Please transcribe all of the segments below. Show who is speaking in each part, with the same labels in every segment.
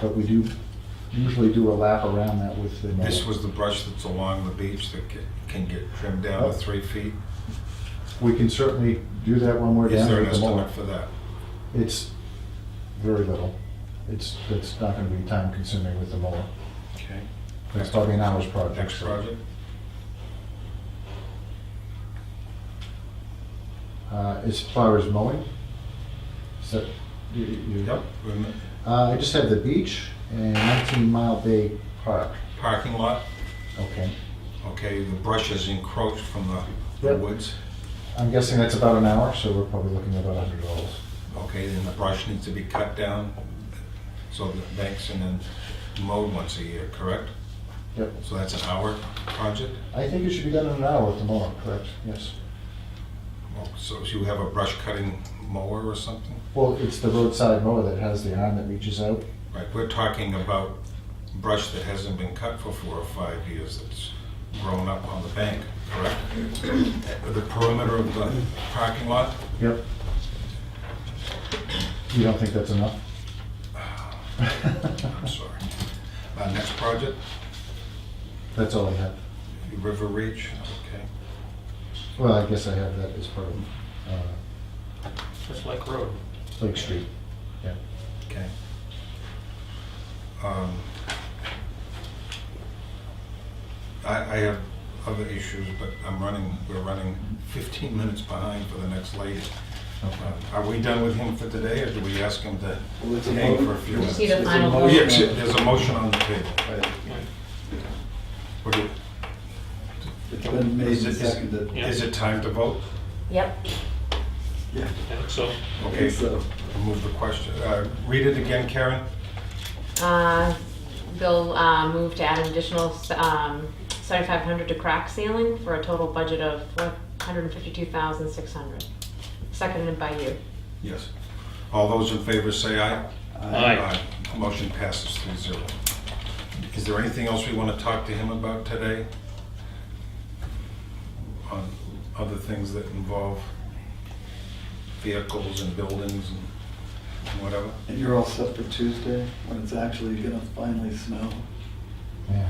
Speaker 1: But we do usually do a lap around that with the. mower.
Speaker 2: This was the brush that's along the beach that ca- can get trimmed down
Speaker 1: Oh.
Speaker 2: to three feet.
Speaker 1: We can certainly do that when we're
Speaker 2: Is
Speaker 1: down
Speaker 2: there an
Speaker 1: with the mower.
Speaker 2: estimate for that?
Speaker 1: It's very little. It's, it's not gonna be time consuming with the mower.
Speaker 2: Okay.
Speaker 1: It's probably an hour's project.
Speaker 2: Next
Speaker 1: so.
Speaker 2: project?
Speaker 1: Uh, as far as mowing, is that, you, you?
Speaker 2: Yep. Rem-
Speaker 1: Uh, I just have the beach and 19 Mile Bay Park.
Speaker 2: Parking lot,
Speaker 1: Okay.
Speaker 2: okay, the brush is encroached from the- the
Speaker 1: Yep.
Speaker 2: woods.
Speaker 1: I'm guessing that's about an hour, so we're probably looking at about $100.
Speaker 2: Okay, then the brush needs to be cut down, so the banks and then mowed once a year, correct?
Speaker 1: Yep.
Speaker 2: So that's an hour project?
Speaker 1: I think it should be done in an hour at the moment, correct? Yes.
Speaker 2: Oh, So you have a brush cutting mower or something?
Speaker 1: Well, it's the roadside mower that has the arm that reaches out.
Speaker 2: Right, we're talking about brush that hasn't been cut for four or five years, that's grown up on the bank, correct? The perimeter of the parking lot,
Speaker 1: Yep. You don't think that's enough?
Speaker 2: I'm sorry. Uh, Next project,
Speaker 1: That's all I have.
Speaker 2: River Reach, okay.
Speaker 1: Well, I guess I have that as part of uh,
Speaker 3: Just like road.
Speaker 1: Lake Street. Yeah.
Speaker 2: Okay. Um, I, I have other issues, but I'm running, we're running 15 minutes behind for the next lady. Um, Are we done with him for today, or do we ask him to hang for a few minutes?
Speaker 4: See the final
Speaker 2: Oh,
Speaker 4: vote.
Speaker 2: yes, there's a motion on the table. What do-
Speaker 5: It's been made
Speaker 2: Is
Speaker 5: and
Speaker 2: it, is-
Speaker 5: seconded.
Speaker 3: Yeah.
Speaker 2: is it time to vote?
Speaker 4: Yep,
Speaker 5: Yeah,
Speaker 3: I think so.
Speaker 2: Okay,
Speaker 5: so.
Speaker 2: move the question, uh, read it again, Karen?
Speaker 4: uh, Bill, uh, moved to add an additional, um, seventy-five hundred to crack ceiling for a total budget of four hundred and fifty-two thousand six hundred. Seconded by you.
Speaker 2: Yes. All those in favor say aye.
Speaker 3: Aye.
Speaker 2: Aye. Motion passes three zero. Is there anything else we want to talk to him about today? On other things that involve vehicles and buildings and whatever?
Speaker 5: And you're all set for Tuesday, when it's actually gonna finally snow?
Speaker 1: Yeah.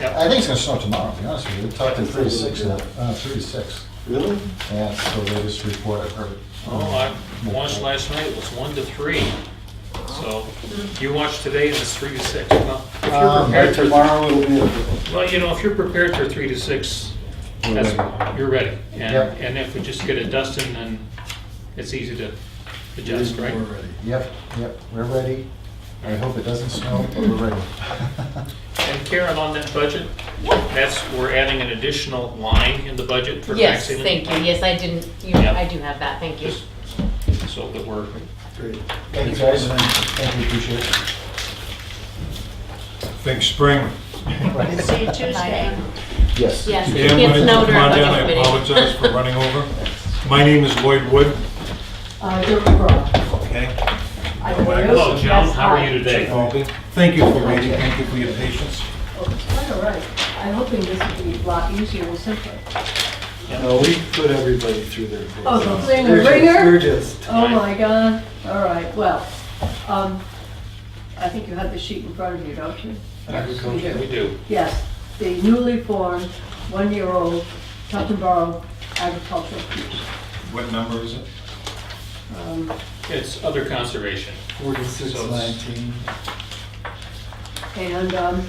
Speaker 3: Yep.
Speaker 1: I think it's gonna snow tomorrow, to be honest with you. We talked to three to six now, uh, three to six.
Speaker 5: Really?
Speaker 1: Yeah, it's the latest report I've heard.
Speaker 3: Oh, I watched last night, it was one to three. So you watched today and it's three to six. Well, if you're
Speaker 1: Um,
Speaker 3: prepared for,
Speaker 5: Tomorrow it'll be, a-
Speaker 3: well, you know, if you're prepared for three to six,
Speaker 1: We're
Speaker 3: that's,
Speaker 1: ready.
Speaker 3: you're ready. And,
Speaker 1: Yep.
Speaker 3: and if we just get it dusting, then it's easy to adjust, right?
Speaker 5: we're ready.
Speaker 1: Yep, yep, we're ready. I hope it doesn't snow, but we're ready.
Speaker 3: And Karen, on that budget, that's, we're adding an additional line in the budget for crack
Speaker 4: Yes,
Speaker 3: ceiling.
Speaker 4: thank you, yes, I didn't, you,
Speaker 3: Yep.
Speaker 4: I do have that, thank you.
Speaker 3: Just so that we're,
Speaker 5: Great.
Speaker 1: Thank you, guys. Thank you, appreciate it.
Speaker 2: Think spring.
Speaker 1: Right.
Speaker 6: See you Tuesday.
Speaker 1: Yes.
Speaker 4: Yes, it
Speaker 2: Jim, when
Speaker 4: can't
Speaker 2: you come
Speaker 4: snow during
Speaker 2: on
Speaker 4: budget
Speaker 2: down, I
Speaker 4: committee.
Speaker 2: apologize for running over. My name is Lloyd Wood,
Speaker 6: Uh, You're wrong.
Speaker 2: okay?
Speaker 6: I will.
Speaker 3: hello, Joan,
Speaker 6: That's
Speaker 3: how are
Speaker 6: fine.
Speaker 3: you today?
Speaker 2: Albie. Thank you for waiting, thank you for your patience.
Speaker 6: Oh, Quite all right. I'm hoping this will be a lot easier and simpler.
Speaker 5: No, we put everybody through their.
Speaker 6: Oh, the thing, the
Speaker 5: We're just-
Speaker 6: ringer?
Speaker 5: We're just,
Speaker 6: Oh, my God. All right, well, um, I think you have the sheet in front of you, don't you?
Speaker 3: Yeah, we do.
Speaker 6: Yes, the newly formed, one-year-old Tufton Borough Agricultural Commission.
Speaker 2: What number is it?
Speaker 6: Um,
Speaker 3: It's other conservation.
Speaker 5: forty-six nineteen.
Speaker 6: And um,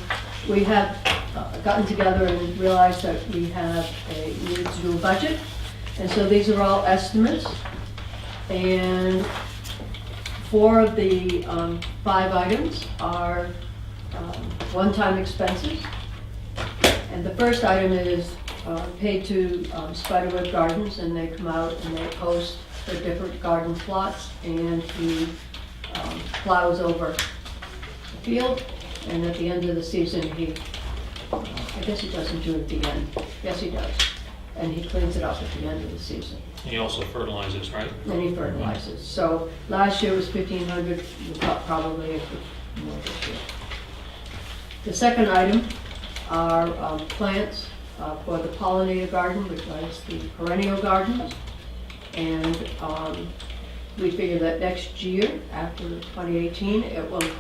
Speaker 6: we have uh, gotten together and realized that we have a, we need to do a budget. And so these are all estimates. And four of the um, five items are um, one-time expenses. And the first item is uh, paid to um, Spiderweb Gardens, and they come out and they post their different garden plots and he um, plows over the field, and at the end of the season, he, I guess he doesn't do it at the end, yes, he does. And he cleans it up at the end of the season,
Speaker 3: He also fertilizes, right?
Speaker 6: and he fertilizes. So last year was fifteen hundred, probably a bit more this year. The second item are um, plants uh, for the pollinator garden, which is the perennial gardens. And um, we figure that next year, after 2018, it will